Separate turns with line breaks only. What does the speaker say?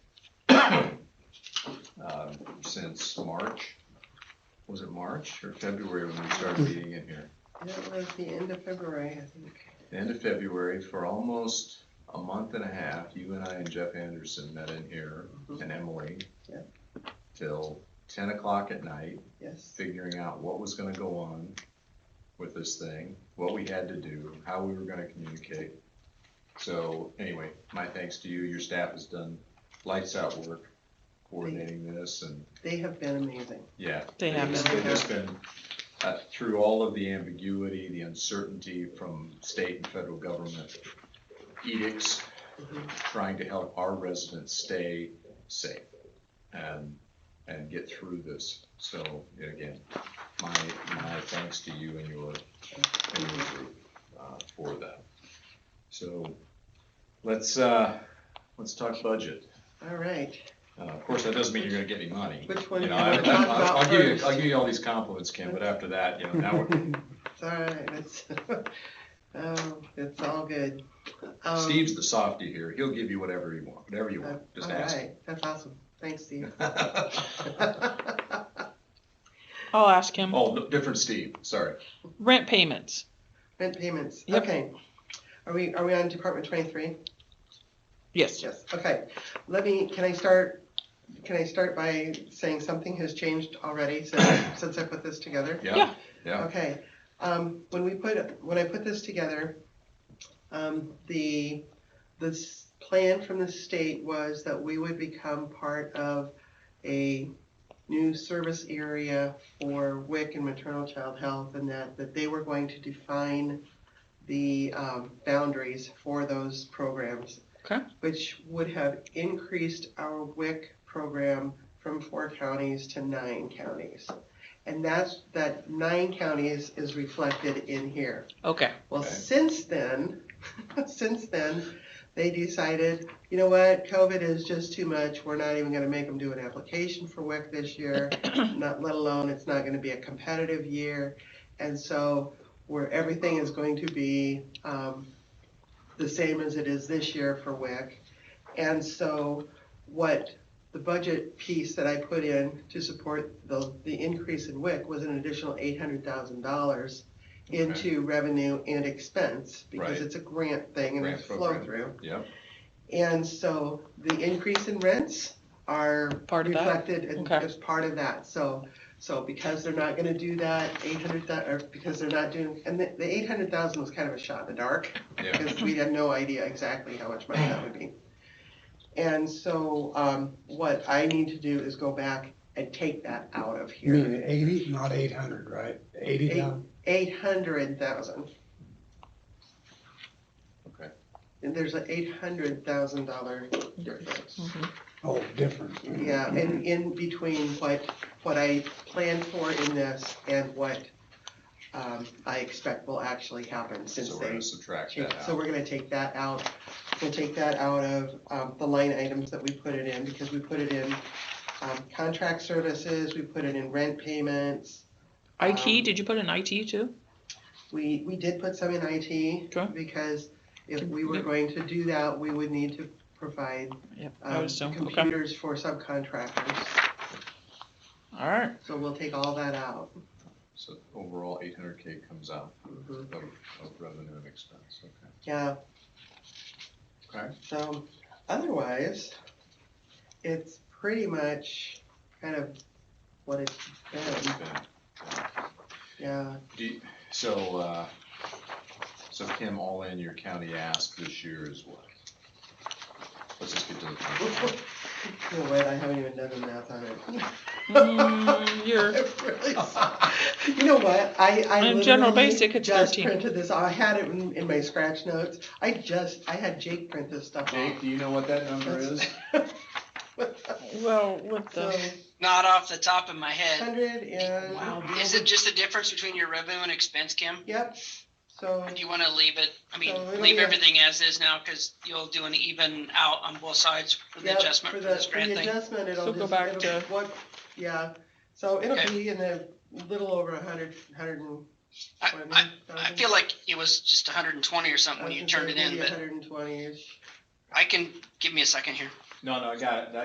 uh, since March. Was it March or February when we started meeting in here?
It was the end of February, I think.
The End of February, for almost a month and a half, you and I and Jeff Anderson met in here and Emily.
Yep.
Till ten o'clock at night,
Yes,
figuring out what was gonna go on with this thing, what we had to do, how we were gonna communicate. So anyway, my thanks to you, your staff has done lights out work coordinating this and
they have been amazing.
yeah.
They have
It's
been.
been- It's been, uh, through all of the ambiguity, the uncertainty from state and federal government edicts, trying to help our residents stay safe and, and get through this. So again, my, my thanks to you and your, and your group, uh, for that. So let's, uh, let's talk budget.
All right,
Uh, Of course, that doesn't mean you're gonna get any money.
Which one
You know,
do you
I-
wanna talk
I- I'll
about
give you,
first?
I'll give you all these compliments, Kim, but after that, you know, now we're,
it's all right, it's, oh, it's all good. Um,
Steve's the softy here. He'll give you whatever you want, whatever you
uh,
want. Just
all
ask. him.
right, That's awesome, thanks, Steve.
I'll ask him.
Oh, no, different Steve, sorry.
Rent payments.
Rent payments,
Yep.
okay. Are we, are we on Department twenty-three?
Yes.
Yes, okay. Let me, can I start, can I start by saying something has changed already since, since I put this together?
Yeah,
Yeah.
yeah.
Okay, um, when we put, when I put this together, um, the, this plan from the state was that we would become part of a new service area for WIC and maternal child health and that, that they were going to define the, um, boundaries for those programs.
Okay.
Which would have increased our WIC program from four counties to nine counties. And that's, that nine counties is reflected in here.
Okay.
Well,
Okay.
since then, since then, they decided, you know what, COVID is just too much. We're not even gonna make them do an application for WIC this year, not, let alone, it's not gonna be a competitive year. And so, where everything is going to be, um, the same as it is this year for WIC. And so, what the budget piece that I put in to support the, the increase in WIC was an additional eight hundred thousand dollars
Okay.
into revenue and expense, because
Right.
it's a grant thing and it's
Grant
flow
program.
through.
Yep.
And so the increase in rents are
Part of that?
reflected in-
Okay.
as part of that, so, so because they're not gonna do that, eight hundred or because they're not doing, and the, the eight hundred thousand was kind of a shot in the dark
yeah,
because we had no idea exactly how much money that would be. And so, um, what I need to do is go back and take that out of
You mean
here.
eighty, not eight hundred, right? Eighty thousand?
Eight hundred thousand,
okay.
and there's an eight hundred thousand dollar difference.
Mhm.
Oh, difference.
Mm-hmm.
Yeah, and in between what, what I planned for in this and what, um, I expect will actually happen since
So we're
they
gonna subtract
Okay,
that out.
So we're gonna take that out, we'll take that out of, um, the line items that we put it in, because we put it in, um, contract services, we put it in rent payments.
IT.
Um,
Did you put an IT too?
We, we did put some in IT.
Okay.
Because if
Can-
we were
yep.
going to do that, we would need to provide,
Yep. I
um,
was so okay.
computers for subcontractors.
All right.
So we'll take all that out.
So overall, eight hundred K comes out
Mhm.
of, of revenue and expense, okay.
Yeah.
Okay.
So, otherwise, it's pretty much kind of what it's been,
Then,
yeah.
do you- So, uh, so Kim, all in your county ask this year is what? Let's just get to the. point.
You know what, I haven't even done the math on it.
Mm, you're
I've really s- You know what, I, I
In general
literally
basic, it's
just
13.
printed this, I had it in, in my scratch notes, I just, I had Jake print this stuff
Jake,
off.
do you know what that number is?
well with
So,
the
Not off the top of my head.
hundred and.
Wow.
Is it just the difference between your revenue and expense, Kim?
Yep, so,
Or do you want to leave it, I mean,
So it'll
leave
be a-
everything as is now because you'll do an even out on both sides for the
yep,
adjustment
for
for
the,
this
for
grant
the
thing?
adjustment, it'll
So go
just,
back
it'll,
to-
what, yeah, so it'll
Okay.
be in the little over a hundred, hundred and
I,
twenty
I,
thousand.
I feel like it was just hundred and twenty or something when you turned it in, but
hundred and twenty-ish.
I can, give me a second here.
No, no, I got it.